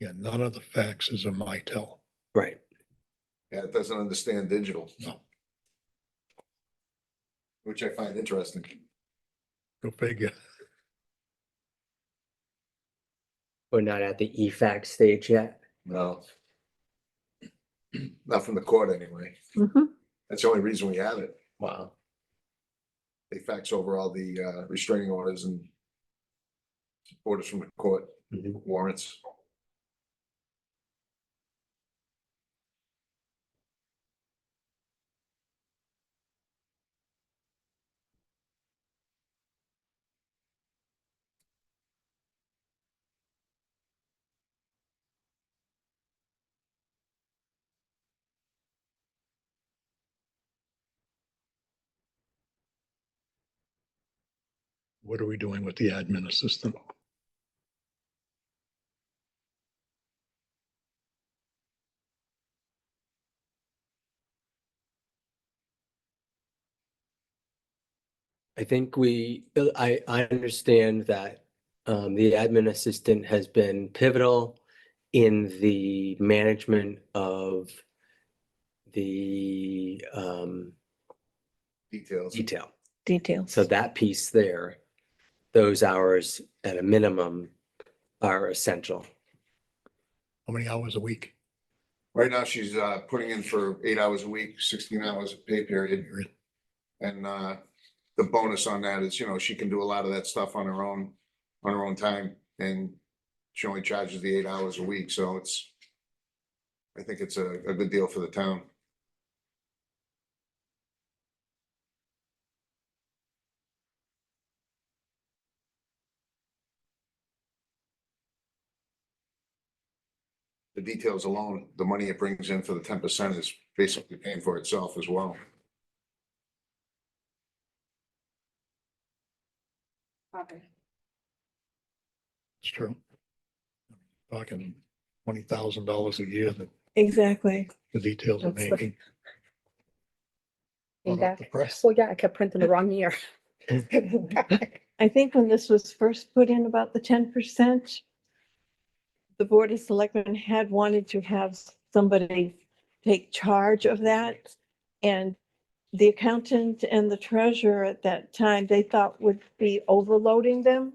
Yeah, none of the faxes are Mitel. Right. Yeah, it doesn't understand digital. No. Which I find interesting. Go figure. We're not at the E EFAC stage yet. No. Not from the court anyway. Mhm. That's the only reason we have it. Wow. They fax over all the uh, restraining orders and orders from the court Mhm. warrants. What are we doing with the admin assistant? I think we, uh, I, I understand that um, the admin assistant has been pivotal in the management of the um, Details. detail. Details. So that piece there, those hours at a minimum are essential. How many hours a week? Right now, she's uh, putting in for eight hours a week, sixteen hours of pay period. And uh, the bonus on that is, you know, she can do a lot of that stuff on her own, on her own time, and she only charges the eight hours a week, so it's. I think it's a, a good deal for the town. The details alone, the money it brings in for the ten percent is basically paying for itself as well. It's true. Talking twenty thousand dollars a year that Exactly. the details are That's the- making. Hot off the press. Well, yeah, I kept printing the wrong year. I think when this was first put in about the ten percent, the Board of Selectmen had wanted to have somebody take charge of that. And the accountant and the treasurer at that time, they thought would be overloading them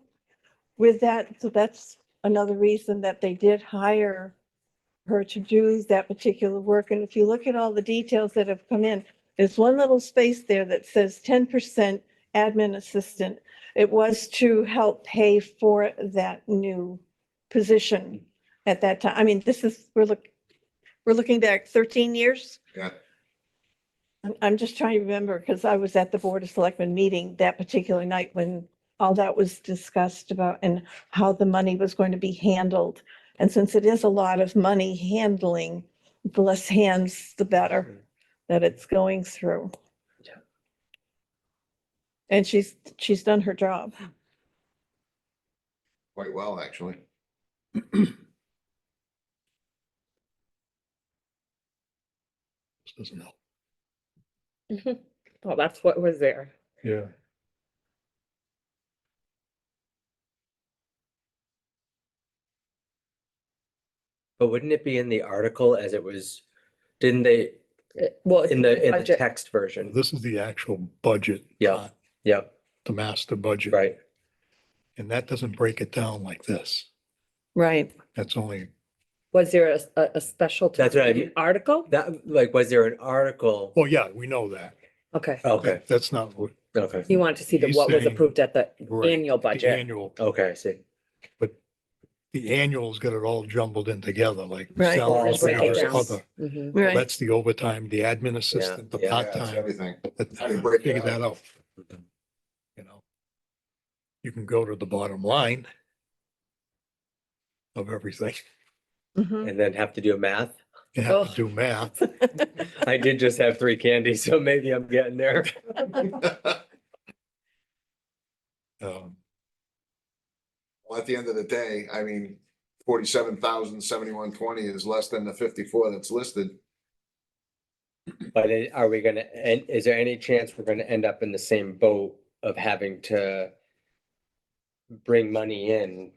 with that. So that's another reason that they did hire her to do that particular work. And if you look at all the details that have come in, there's one little space there that says ten percent admin assistant. It was to help pay for that new position at that time. I mean, this is, we're look, we're looking back thirteen years. Yeah. I'm, I'm just trying to remember because I was at the Board of Selectmen meeting that particular night when all that was discussed about and how the money was going to be handled. And since it is a lot of money handling, the less hands, the better that it's going through. Yeah. And she's, she's done her job. Quite well, actually. This doesn't help. Well, that's what was there. Yeah. But wouldn't it be in the article as it was, didn't they, It- Well, it's in the, in the budget. text version? This is the actual budget. Yeah. not Yep, The master budget. right. And that doesn't break it down like this. Right. That's only, Was there a, a, a special? That's what I town mean. Article? That, like, was there an article? well, yeah, we know that. Okay. Okay, That- That's not what. okay, You wanted to see the He's what was saying- approved at the right, annual the budget. Annual, okay, I see. the annual's got it all jumbled in together, like Right. salaries, Just break it hours, down. other. Mhm. Right. That's the overtime, the admin assistant, the yeah. Yeah, it's part-time, Everything. that- How do you break it figure out? that out. You know? You can go to the bottom line of everything. Mhm. And then have to do math. You have to Oh. do math. I did just have three candies, so maybe I'm getting there. Mm-hmm. Um, Well, at the end of the day, I mean, forty-seven thousand seventy-one twenty is less than the fifty-four that's listed. But i- are we gonna, and is there any chance we're gonna end up in the same boat of having to bring money in